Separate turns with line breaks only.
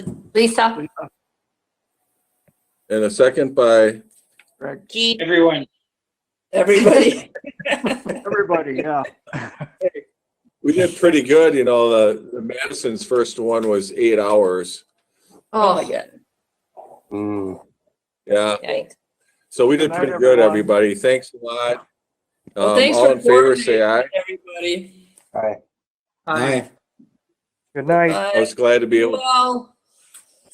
Lisa,
And a second by,
Correct.
G,
Everyone,
Everybody. Everybody, yeah.
we did pretty good, you know, the the Madison's first one was eight hours.
oh,
Yeah,
yikes.
so we did
Good night,
pretty good,
everyone.
everybody. Thanks a lot.
Well,
Um,
thanks
all
for
in favor, say aye.
Everybody.
Aye.
Good night.
I was glad to be able,
Well,